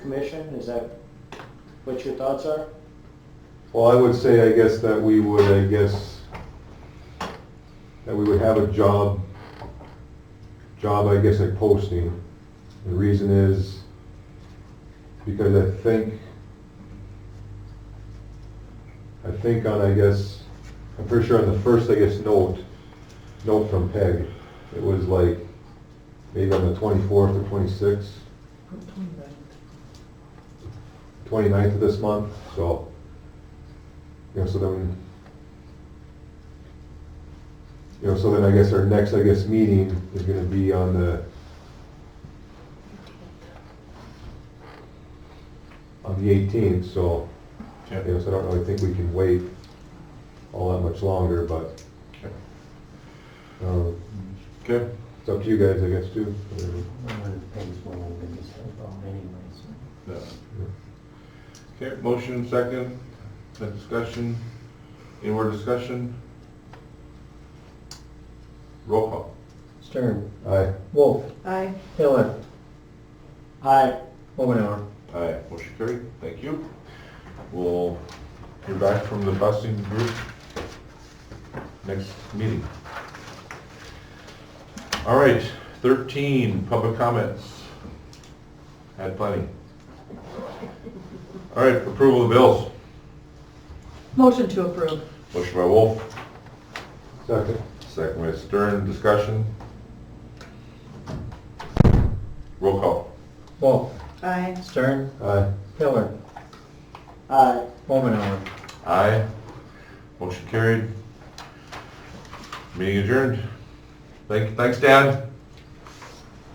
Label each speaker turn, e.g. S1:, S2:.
S1: commission, is that what your thoughts are?
S2: Well, I would say, I guess, that we would, I guess, that we would have a job, job, I guess, like posting. The reason is because I think, I think on, I guess, I'm pretty sure on the first, I guess, note, note from Peg, it was like, maybe on the 24th or 26th, 29th of this month, so, you know, so then, you know, so then I guess our next, I guess, meeting is gonna be on the, on the 18th, so, you know, so I don't really think we can wait all that much longer, but, um,
S3: Okay.
S2: it's up to you guys, I guess, too. whatever.
S3: Yeah. Okay, motion second, then discussion, any more discussion? Roll call.
S4: Stern,
S2: Aye.
S4: Wolf,
S5: Aye.
S4: Hiller,
S1: Aye.
S4: Omenauer.
S3: Aye, motion carried, thank you. We'll hear back from the busing group next meeting. All right, thirteen, public comments. Had plenty. All right, approval of bills,
S5: Motion to approve.
S3: motion by Wolf,
S2: Second.
S3: Second by Stern, discussion. Roll call.
S4: Wolf,
S5: Aye.
S4: Stern,
S2: Aye.
S4: Hiller,
S1: Aye.
S4: Omenauer.
S3: Aye. Motion carried. Meeting adjourned. Thank, thanks, Dan.